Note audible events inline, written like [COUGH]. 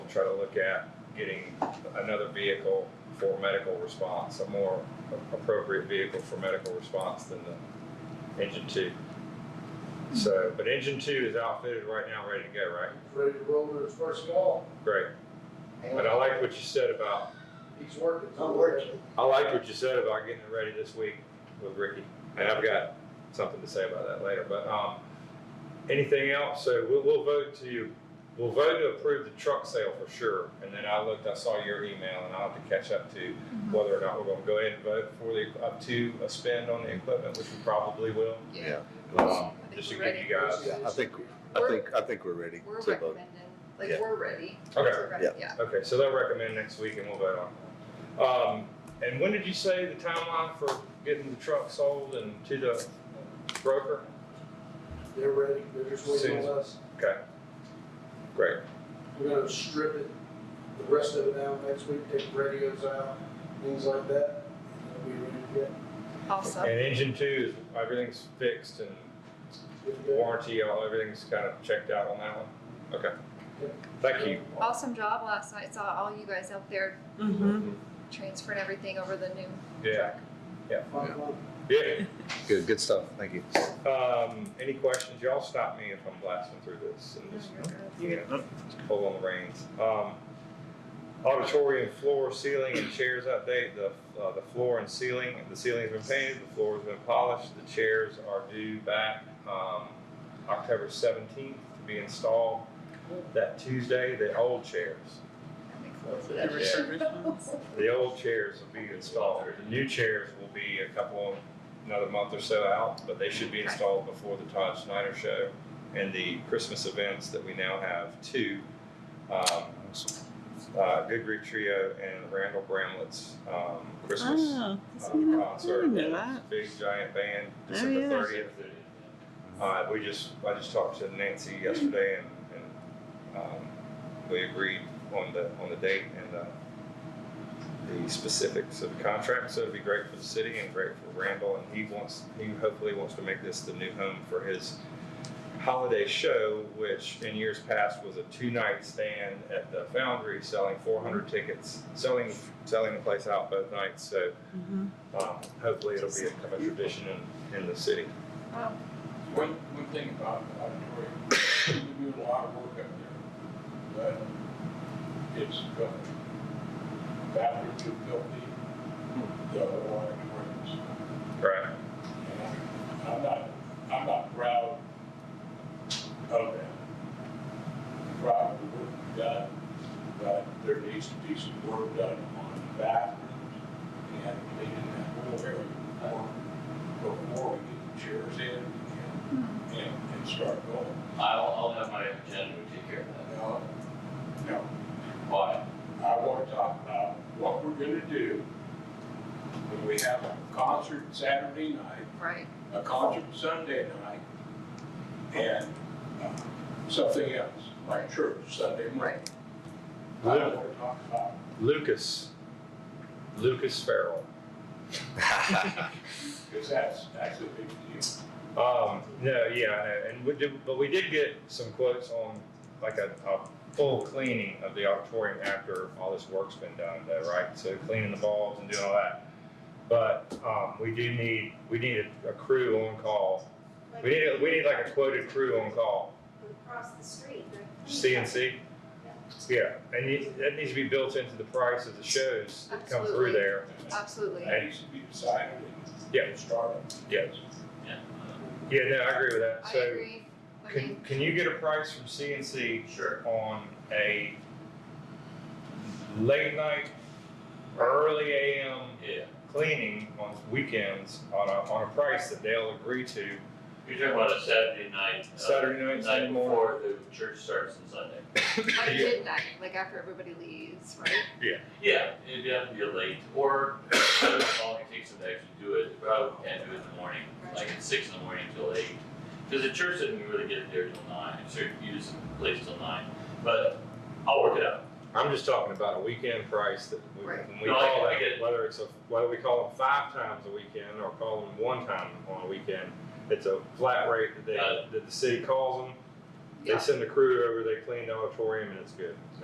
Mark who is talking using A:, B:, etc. A: try to look at getting another vehicle for medical response, a more appropriate vehicle for medical response than the engine two. So, but engine two is outfitted right now, ready to go, right?
B: ready to roll to his first call.
A: Great. But
C: uh,
A: I like what you said about
B: He's working.
D: I'm working.
A: I liked what you said about getting it ready this week with Ricky, and I've got something to say about that later. But um, anything else? So we'll, we'll vote to we'll vote to approve the truck sale for sure. And then I looked, I saw your email, and I'll have to catch up to whether or not we're going to go ahead and vote for the up to a spend on the equipment, which we probably will.
C: Yeah,
A: Um, just to give you guys.
C: yeah, I think, I think, I think we're ready
E: We're
C: to vote.
E: recommending, like,
C: Yeah.
E: we're ready.
A: Okay.
E: We're ready, Yeah.
A: Okay, so they'll recommend next week, and we'll vote on. it. Um, and when did you say the timeline for getting the truck sold and to the broker?
B: They're ready, they're just waiting on us.
A: Okay. Great.
B: We're gonna strip it, the rest of it out next week, take radios out, things like that. and We'll be ready to get-
A: And
E: Awesome.
A: engine two is everything's fixed and
B: get going.
A: warranty, all everything's kind of checked out on that one. Okay. Thank you.
E: Awesome job last night. Saw all you guys out there
F: Mm-hmm.
E: transferring everything over the new
A: Yeah.
E: truck.
B: Fun, fun.
A: Yeah.
C: Good, good stuff, thank you.
A: Um, any questions? Y'all stop me if I'm blasting through this and just you know, just pull on the reins. Um, auditorium floor, ceiling, and chairs update. The uh, the floor and ceiling, the ceiling's been painted, the floor's been polished, the chairs are due back um, October 17th to be installed that Tuesday. The old chairs,
E: That makes a lot of
F: The
E: sense.
F: reservations.
A: the old chairs will be installed. The new chairs will be a couple, another month or so out, but they should be installed before the Todd Snyder show and the Christmas events that we now have two. Um, uh, Good Grief Trio and Randall Bramlett's um, Christmas
F: Oh,
A: uh,
F: that's not- I
A: concert.
F: didn't know
A: It's
F: that.
A: a Big giant band,
F: Oh,
A: December
F: yeah.
A: thirtieth. Uh, we just, I just talked to Nancy yesterday and, and um, we agreed on the, on the date and uh, the specifics of the contract. So it'd be great for the city and great for Randall and he wants, he hopefully wants to make this the new home for his holiday show, which in years past was a two-night stand at the Foundry, selling 400 tickets, selling selling the place out both nights. So
F: Mhm.
A: um, hopefully it'll be a, a tradition in, in the city.
E: [LAUGHS] Wow.
G: One, one thing about the auditorium, we do a lot of work up there, but it's filthy. Bathrooms are filthy, the whole auditoriums.
A: Right.
G: And I'm- I'm not, I'm not proud of that. Proud of the work we've done, but there needs to be some work done on the bathrooms and cleaning that whole area before, before we get the chairs in and, and, and start going.
H: I'll, I'll have my agenda to take care of that.
G: No, no,
H: Why?
G: I want to talk about what we're gonna do when we have a concert Saturday night
E: Right.
G: a concert Sunday night, and uh, something else, like church Sunday morning. I don't want to talk about
A: Lucas. Lucas Farrell.
C: [LAUGHS]
G: because that's, that's a big deal.
A: Um, no, yeah, I know. And we did, but we did get some quotes on like a, a full cleaning of the auditorium after all this work's been done, though, right? So cleaning the bulbs and doing all that. But um, we do need we need a, a crew on call. We need a, we need like a quoted crew on call.
I: Across the street. right?
A: CNC. Yeah, and you, that needs to be built into the price of the shows that come through there.
E: Absolutely.
G: That needs to be decided and
A: Yeah.
G: started.
A: Yes.
H: Yeah.
A: Yeah, no, I agree with that.
E: I
A: so
E: agree. I
A: can
E: mean,
C: [COUGHS]
A: can you get a price from CNC
H: Sure.
A: on a late night, early AM
H: Yeah.
A: cleaning on weekends on a, on a price that they'll agree to
H: You're talking about a Saturday night. uh,
A: Saturday night, Sunday
H: Night
A: morning.
H: before the church starts on Sunday.
E: like
A: Yeah.
E: midnight, like after everybody leaves, right?
H: Yeah, it'd have to be late, or [COUGHS] all it takes them to actually do it, they probably can't do it in the morning, like at six in the morning till eight. Cause the church didn't really get there till nine, so you just place till nine, but I'll work it out.
A: I'm just talking about a weekend price that we,
E: Right.
A: when we
H: No, I
A: call
H: get- I
A: that,
H: get it.
A: whether it's a, whether we call them five times a weekend or call them one time on a weekend, it's a flat rate that they,
H: Got
A: that the city calls them. They
E: Yeah.
A: send the crew over, they clean the auditorium, and it's good.